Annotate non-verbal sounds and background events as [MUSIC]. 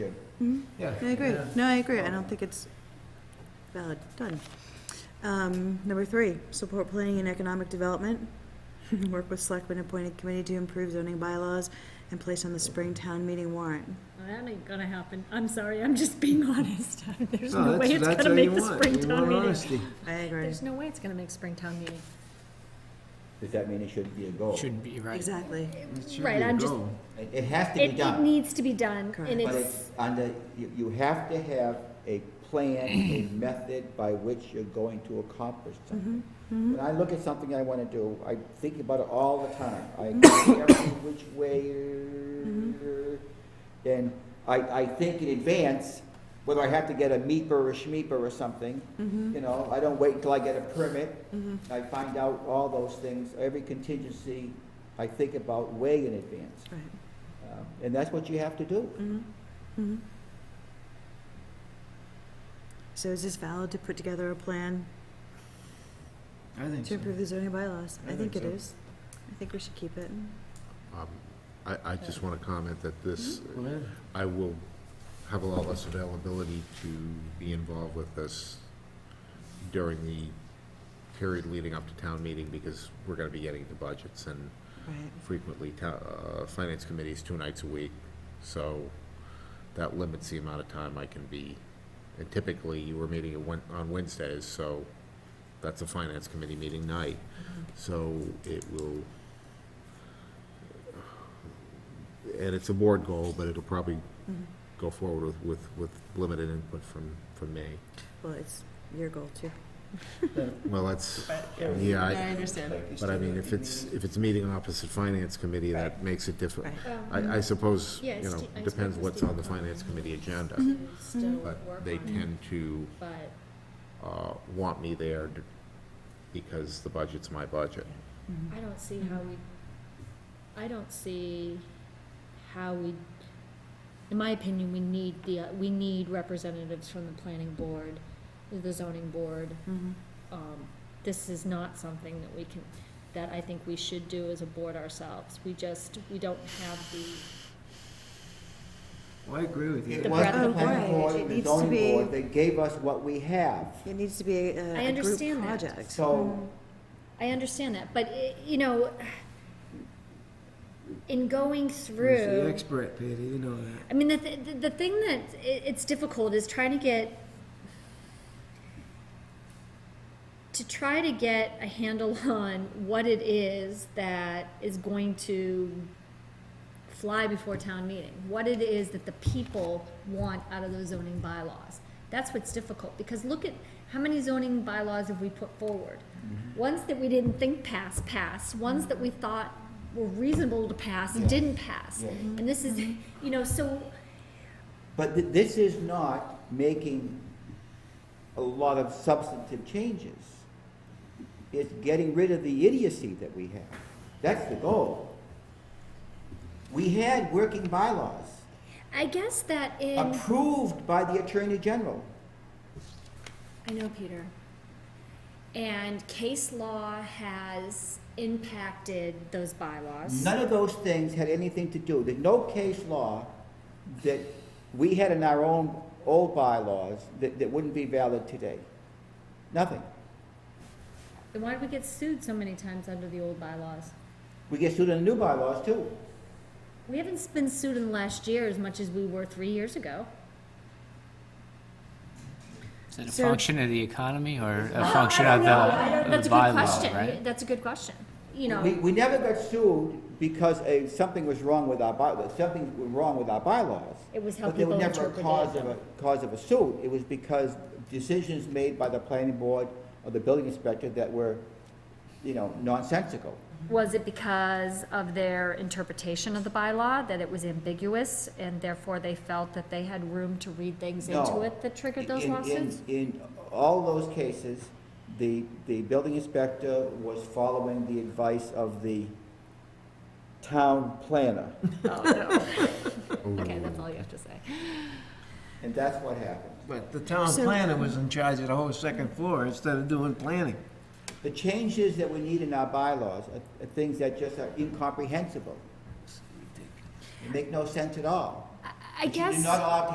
Yeah. Hmm? I agree. Yeah. No, I agree. I don't think it's valid. Done. Um, number three, support planning and economic development. [LAUGHS] Work with selectmen appointed committee to improve zoning bylaws and place on the spring town meeting warrant. That ain't gonna happen. I'm sorry, I'm just being [LAUGHS] honest. There's No, no way that's- it's that's gonna what make you the want. You Springtown want meeting. honesty. I agree. There's no way it's gonna make Springtown meeting. Does that mean it shouldn't be a goal? Shouldn't be, right? Exactly. It should Right, be a I'm just- goal. It, it has to be It, it done. needs to be done, Correct. and But it's, it's under, you, you have to have a plan, a method by which you're going to accomplish something. When I look at something I wanna do, I think about it all the time. I go every which way, and I, I think in advance, whether I have to get a MEPR or a SHMEPR or something, you know, I don't wait until I get a permit. I find out all those things, every contingency I think about way in advance. Right. Mm-hmm. Um, And that's what you have to do. So is this valid to put together a plan I think to so. improve the zoning bylaws? I I think it think so. is. I think we should keep it. Um, I, I just want to comment that this, Mm-hmm. Go ahead. I will have a lot less availability to be involved with this during the period leading up to town meeting because we're going to be getting into budgets and Right. frequently to- uh, finance committees two nights a week. So that limits the amount of time I can be. And typically, you were meeting at Wed- on Wednesdays, so that's a finance committee meeting night. So it will, and it's a board goal, but it'll probably go forward with, with, with limited input from, from me. Well, it's your goal too. Well, that's, Yeah. yeah, I I- understand. but I mean, if it's, if it's meeting opposite finance committee, that makes it different. Right. um, I, I suppose, Yeah, you it's know, Ste- I spoke depends with what's Steve Mm-hmm. on the Cronin. finance committee agenda, still work but on they it, tend to, but uh, want me there d- because the budget's my budget. I don't see how we, I don't see how we, in my opinion, we need the, uh, we need representatives from the planning board, the zoning board. Mhm. Um, this is not something that we can, that I think we should do as a board ourselves. We just, we don't have the, Well, I agree with you. It The was breadth the of planning it. board It and the needs to zoning board be- that gave us what we have. It needs to be a, I a group understand that. project. So, I understand that, but, eh, you know, in going through. He's the expert, Peter, you know that. I mean, the, th- the- the thing that i it's difficult is trying to get to try to get a handle [LAUGHS] on what it is that is going to fly before town meeting. What it is that the people want out of those zoning bylaws. That's what's difficult because look at how many zoning bylaws have we put forward. Mm-hmm. Ones that we didn't think passed passed. Ones that we thought were reasonable to pass Yeah. didn't pass. Yeah. And this is, you know, so but th- this is not making a lot of substantive changes. It's getting rid of the idiocy that we have. That's the goal. We had working bylaws I guess that in approved by the Attorney General. I know Peter. And case law has impacted those bylaws. None of those things had anything to do, there's no case law that we had in our own old bylaws that, that wouldn't be valid today. Nothing. Then why did we get sued so many times under the old bylaws? We get sued on the new bylaws too. We haven't been sued in the last year as much as we were three years ago. Is it a So- function of the economy or a I- function I don't of know. I don't- the That's the a good bylaw, question. right? That's a good question. You We, know, we never got sued because a, something was wrong with our bylaws, something was wrong with our bylaws. It was how But they were people never a interpreted cause of them. a, cause of a suit, it was because decisions made by the planning board or the building inspector that were, you know, nonsensical. was it because of their interpretation of the bylaw that it was ambiguous and therefore they felt that they had room to read things into No. it that triggered those In- in- lawsuits? In all those cases, the, the building inspector was following the advice of the town planner, Okay, that's all you have to say. and that's what happened. But the town So- planner was in charge of the whole second floor instead of doing planning. The changes that we need in our bylaws are are things that just are incomprehensible. Make no sense at all. I guess. You're not allowed to